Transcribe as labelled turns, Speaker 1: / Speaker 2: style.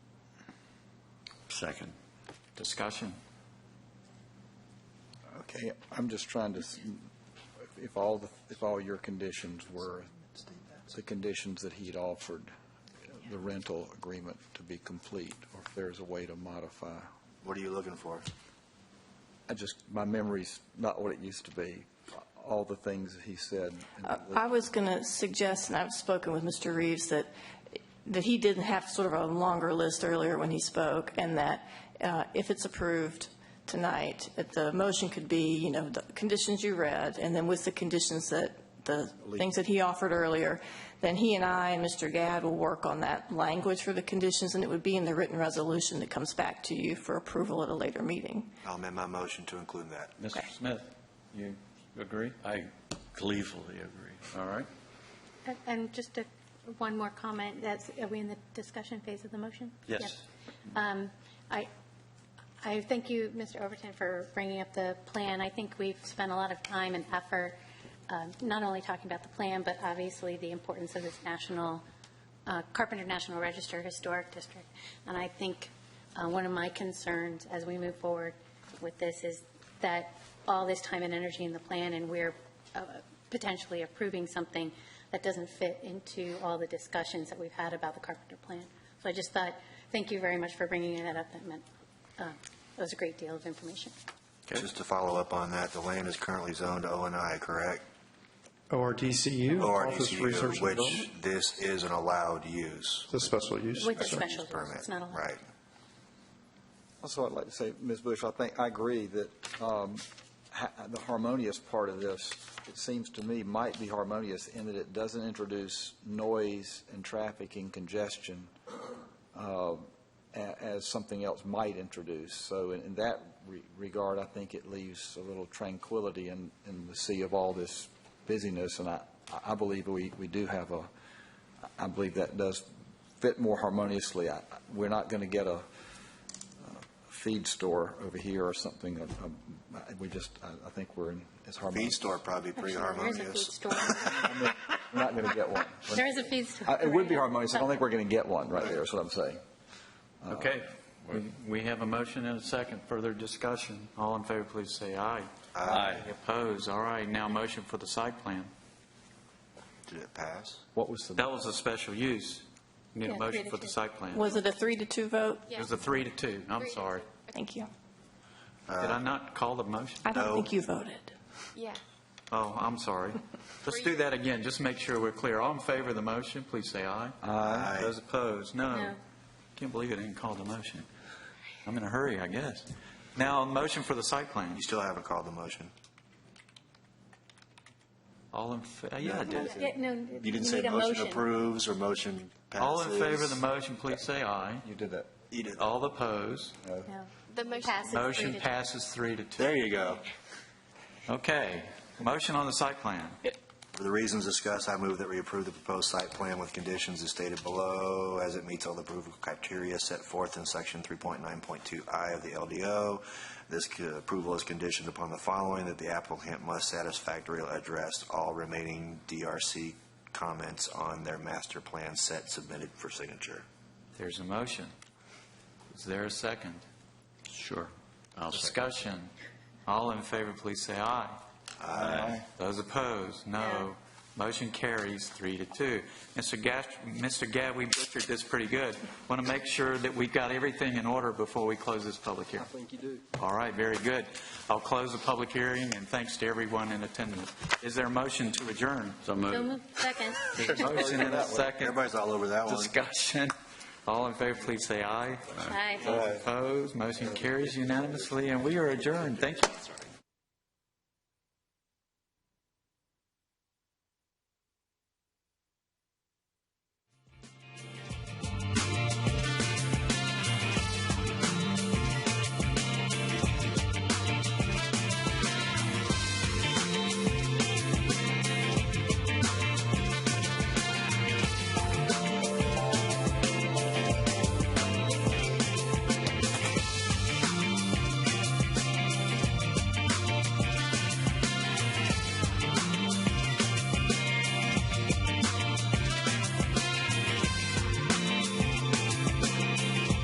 Speaker 1: Second.
Speaker 2: Discussion?
Speaker 3: Okay, I'm just trying to, s- if all, the if all your conditions were the conditions that he'd offered, the rental agreement to be complete, or if there's a way to modify.
Speaker 1: What are you looking for?
Speaker 3: I just, my memory's not what it used to be, all the things that he said. in
Speaker 4: Uh,
Speaker 3: the list.
Speaker 4: I was going to suggest, and I've spoken with Mr. Reeves, that, that he didn't have sort of a longer list earlier when he spoke, and that uh, if it's approved tonight, that the motion could be, you know, the conditions you read, and then with the conditions that, the things that he offered earlier, then he and I and Mr. Gadd will work on that language for the conditions, and it would be in the written resolution that comes back to you for approval at a later meeting.
Speaker 1: I'll amend my motion to include that.
Speaker 2: Mr. Smith, you agree?
Speaker 1: I gleefully agree.
Speaker 2: All right.
Speaker 5: And- And just a, one more comment, that's, are we in the discussion phase of the motion?
Speaker 1: Yes.
Speaker 5: Um, I, I thank you, Mr. Overton, for bringing up the plan. I think we've spent a lot of time and effort, um, not only talking about the plan, but obviously the importance of this national, uh, Carpenter National Register Historic District. And I think uh, one of my concerns as we move forward with this is that all this time and energy in the plan, and we're uh, potentially approving something that doesn't fit into all the discussions that we've had about the Carpenter Plan. So I just thought, thank you very much for bringing that up. That meant, uh, that was a great deal of information.
Speaker 1: Just to follow up on that, the land is currently zoned O and I, correct?
Speaker 6: ORDCU, Office Research
Speaker 1: ORDCU,
Speaker 6: and Development.
Speaker 1: which this is an allowed use.
Speaker 6: It's a special use.
Speaker 5: With the
Speaker 6: so-
Speaker 5: special
Speaker 1: Permit,
Speaker 5: It's not allowed.
Speaker 1: Right.
Speaker 3: Also, I'd like to say, Ms. Bush, I think, I agree that um, ha- the harmonious part of this, it seems to me, might be harmonious in that it doesn't introduce noise and traffic and congestion uh, a- as something else might introduce. So in in that re- regard, I think it leaves a little tranquility in, in the sea of all this busyness, and I, I believe we, we do have a, I believe that does fit more harmoniously. I- We're not going to get a, feed store over here or something. um, I- We just, I I think we're in, it's
Speaker 1: Feed
Speaker 3: harmonious.
Speaker 1: store probably pretty
Speaker 5: Actually, There is a
Speaker 1: harmonious.
Speaker 5: feed store.
Speaker 3: We're not going to get one.
Speaker 5: There is a feed store.
Speaker 3: I- Uh, It would be harmonious. I don't think we're going to get one right there, is what I'm saying.
Speaker 2: Okay.
Speaker 1: Uh,
Speaker 2: We- We have a motion and a second. Further discussion? All in favor, please say aye. Aye. Opposed? All right, now motion for the site plan.
Speaker 1: Did it pass?
Speaker 3: What was the,
Speaker 2: That was a special use. Need a
Speaker 5: Yeah,
Speaker 2: motion
Speaker 5: three
Speaker 2: for
Speaker 5: to
Speaker 2: the
Speaker 5: two.
Speaker 2: site plan.
Speaker 4: Was it a three to two vote?
Speaker 2: It was a three to two. I'm
Speaker 5: Three to
Speaker 2: sorry.
Speaker 4: Thank you.
Speaker 2: Did
Speaker 1: Uh,
Speaker 2: I not call the motion?
Speaker 4: I
Speaker 1: No.
Speaker 4: don't think you voted.
Speaker 7: Yeah.
Speaker 2: Oh, I'm sorry. Let's do that again, just make sure we're clear. All in favor of the motion, please say aye.
Speaker 1: Aye.
Speaker 2: Those opposed, no.
Speaker 5: No.
Speaker 2: Can't believe it didn't call the motion. I'm in a hurry, I guess. Now, a motion for the site plan.
Speaker 1: You still haven't called the motion.
Speaker 2: All in, fa- yeah, I did.
Speaker 5: Yeah, No.
Speaker 1: You didn't say
Speaker 5: need a
Speaker 1: motion approves or motion passes.
Speaker 2: All in favor of the motion, please say aye.
Speaker 3: you did that.
Speaker 1: You did-
Speaker 2: All opposed,
Speaker 5: No.
Speaker 7: The motion-
Speaker 5: Passes three
Speaker 2: motion
Speaker 5: to two.
Speaker 2: passes three to two.
Speaker 1: There you go.
Speaker 2: Okay, motion on the site plan.
Speaker 1: For the reasons discussed, I move that we approve the proposed site plan with conditions as stated below, as it meets all the approval criteria set forth in section 3.9.2I of the LDO. This c- approval is conditioned upon the following, that the applicant must satisfactorily address all remaining DRC comments on their master plan set submitted for signature.
Speaker 2: There's a motion. Is there a second?
Speaker 1: Sure.
Speaker 2: Discussion. All in favor, please say aye. Aye. Those opposed, no.
Speaker 5: No.
Speaker 2: Motion carries three to two. Mr. Gash, Mr. Gadd, we butchered this pretty good. Want to make sure that we've got everything in order before we close this public hearing. I think you do. All right, very good. I'll close the public hearing, and thanks to everyone in attendance. Is there a motion to adjourn? So
Speaker 5: No move, second.
Speaker 2: Motion and a second.
Speaker 1: Everybody's all over that one.
Speaker 2: Discussion. All in favor, please say aye.
Speaker 5: Aye.
Speaker 2: Those opposed, motion carries unanimously, and we are adjourned. Thank you.